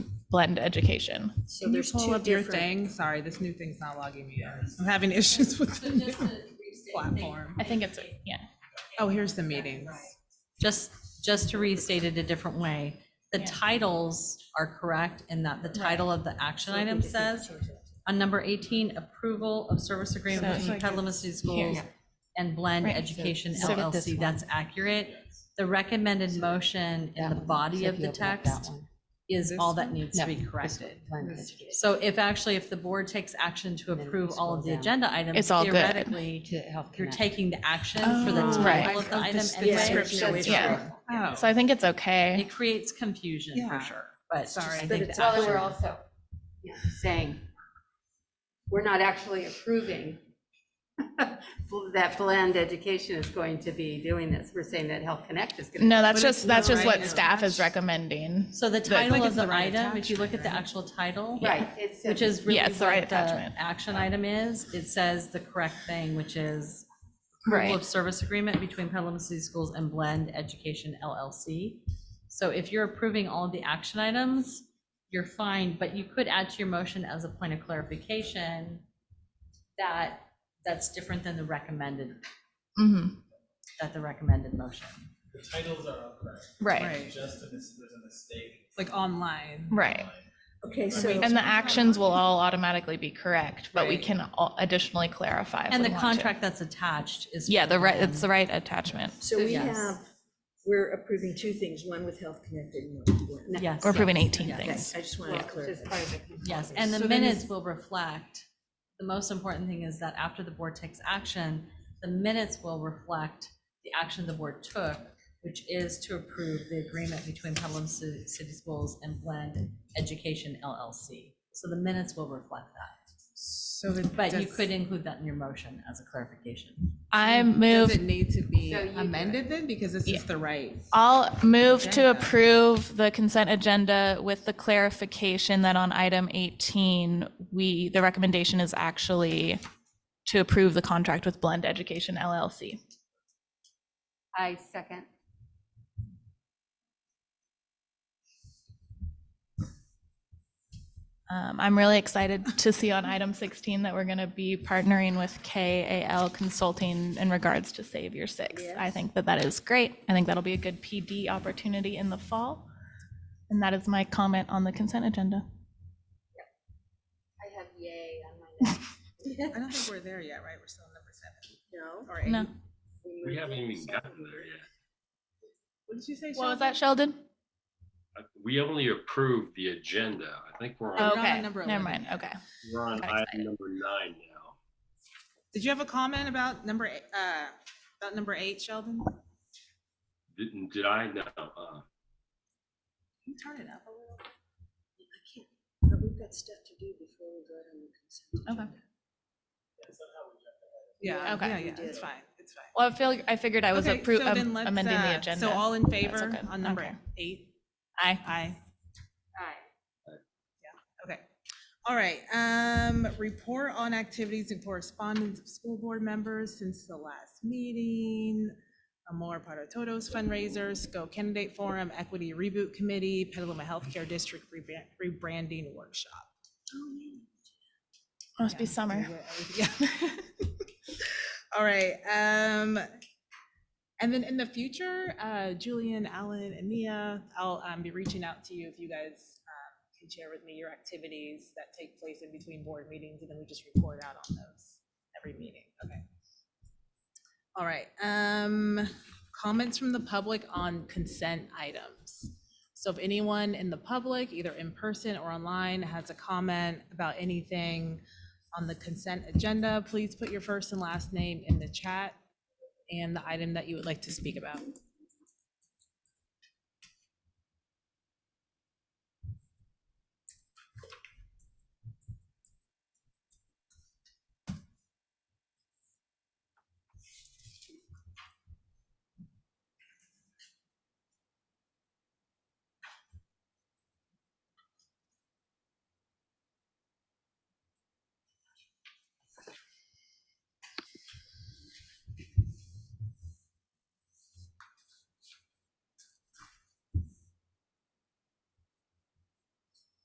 blend education. So there's Pull two up your different. thing. Sorry, this new thing's not logging me in. I'm having issues with the new platform. I think it's, yeah. Oh, here's the meetings. Just, just to restate it a different way, the Yeah. titles are correct in that the title of the action item says, on number 18, approval of service agreement So between it's like Petaluma City Schools Here. and Blend Right. Education So- so with this LLC, that's accurate. The recommended motion in the body of the text is This all that needs to No, be this corrected. This- So if actually, if the board takes action to then approve you all of scroll the down. agenda items. It's all good. Theoretically, you're taking the action for the Oh, Right. title of the I- oh, item this- the anyway. description so we it's Yeah. wrong. Oh, So I think it's okay. It creates confusion Yeah. for sure, but Sorry. sorry, I But think it's the all action- Sure. we're also yeah, saying, we're not actually approving that Blend Education is going to be doing this. We're saying that Health Connect is going to. No, that's But it's just, that's not just right what now. staff is recommending. So the Like title it's of the the right item, if you look at the attachment, actual title. Right. it's- Which is really Yeah, what it's the right the attachment. action item is, it says the correct thing, which is approval of service agreement between Petaluma City Schools and Blend Education LLC. So if you're approving all of the action items, you're fine, but you could add to your motion as a point of clarification that, that's different than the recommended, Mhm. that the recommended motion. The titles are all correct, Right, right. just in this, there's a mistake. Like online. right. Okay, so, Wait. And the actions will all automatically be correct, but we Right. can al- additionally clarify. if And we the want to. contract that's attached is. Yeah, the right, from- it's the right attachment. so we Yes. have, we're approving two things, one with Health Connect and one with Blend. Yes. We're approving yes, 18 yes. Okay, things. I just wanted to Well, just clarify. clarification. Yes, and So the then is- minutes will reflect, the most important thing is that after the board takes action, the minutes will reflect the action the board took, which is to approve the agreement between Pelham Ci- City Schools and Blend Education LLC. So the minutes will reflect that, So the. but you does- could include that in your motion as a clarification. I Does move, it need to be So you do it. amended then? Because this Yeah. Uh, is the right. I'll move to Agenda. approve the consent agenda with the clarification that on item 18, we, the recommendation is actually to approve the contract with Blend Education LLC. I second. Um, I'm really excited to see on item 16 that we're going to be partnering with KAL Consulting in regards to Save Your Six. I think that that is great. I think that'll be a good PD opportunity in the fall. And that is my comment on the consent agenda. I have yay on my I don't think we're there yet, right? We're still on number seven No. or No. eight. We haven't even gotten there yet. What did you say? What was Sheldon? that, Sheldon? Uh, We only approved the agenda. I think we're Oh. on, on Okay, number never 11. mind. Okay. we're on got item excited. number nine now. Did you have a comment about number, eight- uh, about number eight, Sheldon? Didn't, did I? No. uh, Can you Turn it up a little. But we've got stuff to do before we vote on the consent. Okay. agenda. Yeah, Okay. yeah, You yeah, did it's it. fine, it's fine. Well, I feel, I figured I was Okay, appro- so then am- let's, amending uh, the agenda. So all in favor okay. on number Okay. eight? Aye. Aye, Aye. okay. All right, um, report on activities and correspondence of school board members since the last meeting. Amor Para Todos fundraisers, Go Candidate Forum, Equity Reboot Committee, Petaluma Healthcare District Rebran- Rebranding Workshop. Must be Yeah, summer. do it- yeah. All right, um, and then in the future, uh, Julian, Alan, and Mia, I'll, um, be reaching out to you if you guys, um, can share with me your activities that take place in between board meetings, and then we just report out on those every meeting, okay? All right, um, comments from the public on consent items. So if anyone in the public, either in person or online, has a comment about anything on the consent agenda, please put your first and last name in the chat and the item that you would like to speak about.